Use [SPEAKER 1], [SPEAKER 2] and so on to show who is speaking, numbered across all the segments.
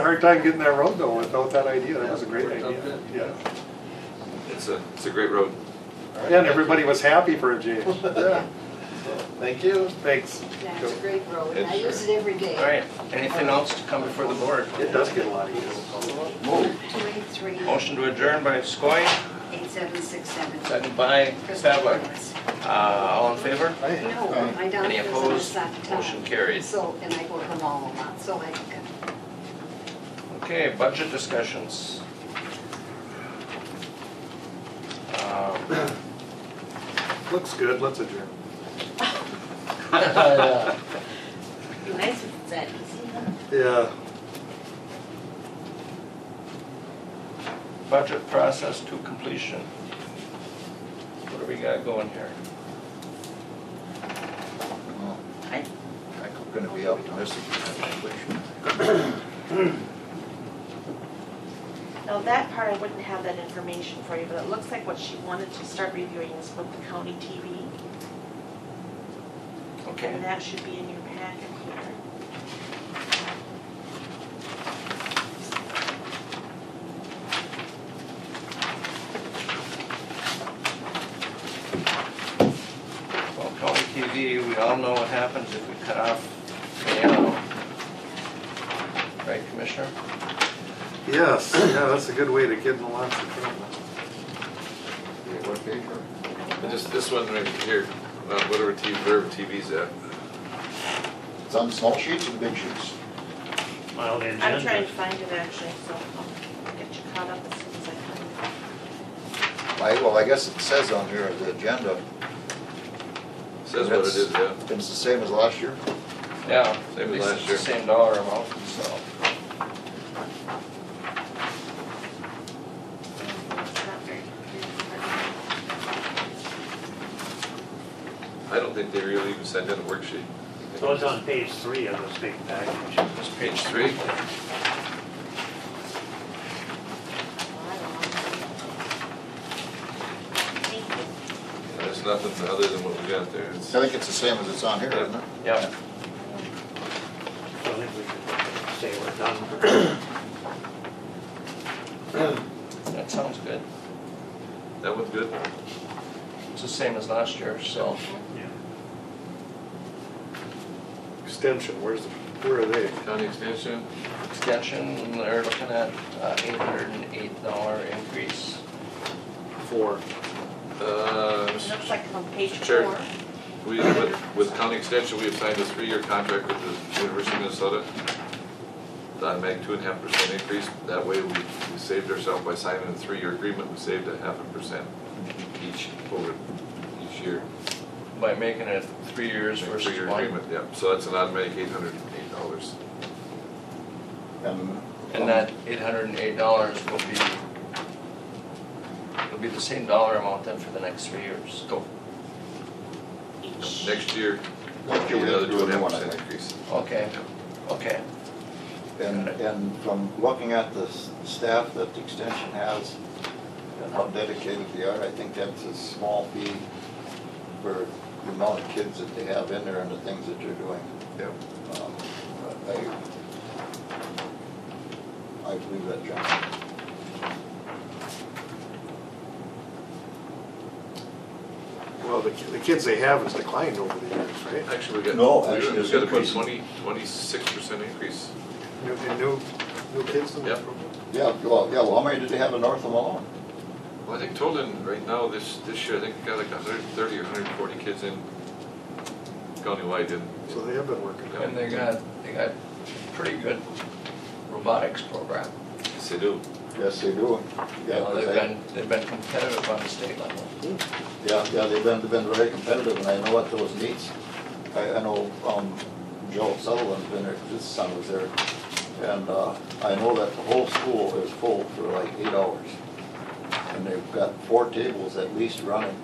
[SPEAKER 1] hard time getting that road though without that idea. That was a great
[SPEAKER 2] Worked out
[SPEAKER 1] idea.
[SPEAKER 2] good.
[SPEAKER 1] Yeah.
[SPEAKER 3] It's a, it's a great road.
[SPEAKER 1] And everybody was happy for a change. Yeah.
[SPEAKER 2] Thank you.
[SPEAKER 1] Thanks.
[SPEAKER 4] That's a great road, I
[SPEAKER 3] It's-
[SPEAKER 4] use it every day.
[SPEAKER 5] All right, anything else to come before the board?
[SPEAKER 1] It does get a lot of use.
[SPEAKER 5] Move.
[SPEAKER 4] 283
[SPEAKER 5] Motion to adjourn by Skoye,
[SPEAKER 4] 8767.
[SPEAKER 5] second by
[SPEAKER 4] Crystal
[SPEAKER 5] Fava.
[SPEAKER 4] Palace.
[SPEAKER 5] Uh, All in favor?
[SPEAKER 4] No, my
[SPEAKER 5] Um, Any
[SPEAKER 4] doctor's on the
[SPEAKER 5] opposed?
[SPEAKER 4] side of town.
[SPEAKER 5] Motion carried.
[SPEAKER 4] So, and I go to the mall a lot, so I can
[SPEAKER 5] Okay, budget discussions. Um,
[SPEAKER 1] Looks good. Let's adjourn.
[SPEAKER 4] Be nice if it's that easy.
[SPEAKER 1] Yeah.
[SPEAKER 5] Budget process to completion. What do we got going here?
[SPEAKER 2] I'm gonna be optimistic.
[SPEAKER 6] Now, that part, I wouldn't have that information for you, but it looks like what she wanted to start reviewing is with the county TV, and
[SPEAKER 5] Okay,
[SPEAKER 6] that should be in your packet here.
[SPEAKER 5] well, county TV, we all know what happens if we cut off Yale. Right, Commissioner?
[SPEAKER 1] Yes. Yeah, that's a good way to get in lots of trouble.
[SPEAKER 3] And just this one right here, uh, whatever TV, wherever TV's at.
[SPEAKER 2] It's on the small sheets or the big sheets?
[SPEAKER 7] Well, the
[SPEAKER 6] I'm trying
[SPEAKER 7] agenda,
[SPEAKER 6] to find it actually, so I'll get you caught up as soon as I can.
[SPEAKER 2] I, well, I guess it says on here, the agenda,
[SPEAKER 3] Says what it is, yeah.
[SPEAKER 2] it's the same as last year.
[SPEAKER 5] Yeah,
[SPEAKER 3] Same
[SPEAKER 5] at
[SPEAKER 3] as
[SPEAKER 5] least
[SPEAKER 3] last
[SPEAKER 5] it's
[SPEAKER 3] year.
[SPEAKER 5] the same dollar amount, so.
[SPEAKER 6] It's not very clear.
[SPEAKER 3] I don't think they really even send in a worksheet.
[SPEAKER 7] so it's on page three of this big package.
[SPEAKER 5] It's
[SPEAKER 3] Page three.
[SPEAKER 6] Well, I don't know. Thank you.
[SPEAKER 3] There's nothing other than what we got there. It's-
[SPEAKER 2] I think it's the same as it's on here, isn't it?
[SPEAKER 5] Yeah,
[SPEAKER 7] So I think we can say we're done.
[SPEAKER 5] that sounds good.
[SPEAKER 3] That one's good.
[SPEAKER 5] It's the same as last year, so.
[SPEAKER 7] Yeah.
[SPEAKER 1] Extension, where's, the where are they?
[SPEAKER 3] County extension,
[SPEAKER 5] Extension, they're looking at uh, eight hundred and eight dollar increase.
[SPEAKER 1] Four.
[SPEAKER 3] uh,
[SPEAKER 6] It Looks like on page
[SPEAKER 3] Sure.
[SPEAKER 6] four.
[SPEAKER 3] we, with, with county extension, we have signed a three-year contract with the University of Minnesota. That make two and a half percent increase. That way we, we saved ourselves by signing a three-year agreement. We saved a half a percent each over each year.
[SPEAKER 5] By making it three years
[SPEAKER 3] Make
[SPEAKER 5] versus
[SPEAKER 3] Three-year
[SPEAKER 5] one.
[SPEAKER 3] agreement, yeah. So that's an automatic eight hundred and eight dollars.
[SPEAKER 2] And-
[SPEAKER 5] And uh, that eight hundred and eight dollars will be, it'll be the same dollar amount then for the next three years.
[SPEAKER 6] Each.
[SPEAKER 3] Next year,
[SPEAKER 2] Next year we have
[SPEAKER 3] another
[SPEAKER 2] to do
[SPEAKER 3] two and a
[SPEAKER 2] another
[SPEAKER 3] half
[SPEAKER 2] one, I
[SPEAKER 3] percent
[SPEAKER 2] think.
[SPEAKER 3] increase.
[SPEAKER 5] Okay, okay,
[SPEAKER 2] And, and from looking at the s- staff that the extension has and how dedicated they are, I think that's a small fee for the amount of kids that they have in there and the things that they're doing.
[SPEAKER 3] Yep.
[SPEAKER 2] Um, but I, I believe that, John.
[SPEAKER 1] Well, the, the kids they have has declined over the years, right?
[SPEAKER 3] Actually, we got.
[SPEAKER 2] No,
[SPEAKER 3] we-
[SPEAKER 2] actually, it's
[SPEAKER 3] We got about
[SPEAKER 2] increasing.
[SPEAKER 3] twenty, twenty-six percent increase.
[SPEAKER 1] New, and new, new kids in the
[SPEAKER 3] Yep.
[SPEAKER 1] program?
[SPEAKER 2] Yeah, well, yeah, well, how many did they have in North Malone?
[SPEAKER 3] Well, I think Tolan, right now, this, this year, I think we got like hundred and thirty or hundred and forty kids in countywide in.
[SPEAKER 1] So they have been working.
[SPEAKER 3] Yeah.
[SPEAKER 5] and they got, they got pretty good robotics program.
[SPEAKER 3] Yes, they do.
[SPEAKER 2] Yes, they do.
[SPEAKER 5] You
[SPEAKER 2] Yeah,
[SPEAKER 5] know, They've
[SPEAKER 2] they-
[SPEAKER 5] been, they've been competitive on the state level.
[SPEAKER 2] Yeah, yeah, they've been, they've been very competitive, and I know what those needs. I, I know, um, Joe Sutherland's been there, his son was there, and, uh, I know that the whole school is full for like eight hours. And they've got four tables at least running,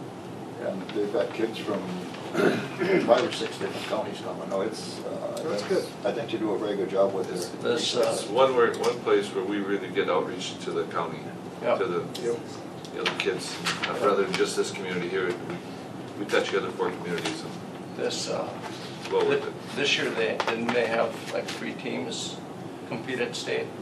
[SPEAKER 2] and they've got kids from five or six different counties coming, no, it's, uh.
[SPEAKER 1] That's good.
[SPEAKER 2] I think they do a very good job with
[SPEAKER 3] This-
[SPEAKER 2] it.
[SPEAKER 5] This, uh,
[SPEAKER 3] It's one where, one place where we really get outreach to the county,
[SPEAKER 5] Yeah.
[SPEAKER 3] to the,
[SPEAKER 1] Yep.
[SPEAKER 3] the other kids, uh, rather than just this community here. we- We touch the other four communities and
[SPEAKER 5] This, uh,
[SPEAKER 3] well with
[SPEAKER 5] thi-
[SPEAKER 3] it.
[SPEAKER 5] this year they, didn't they have like three teams compete at state?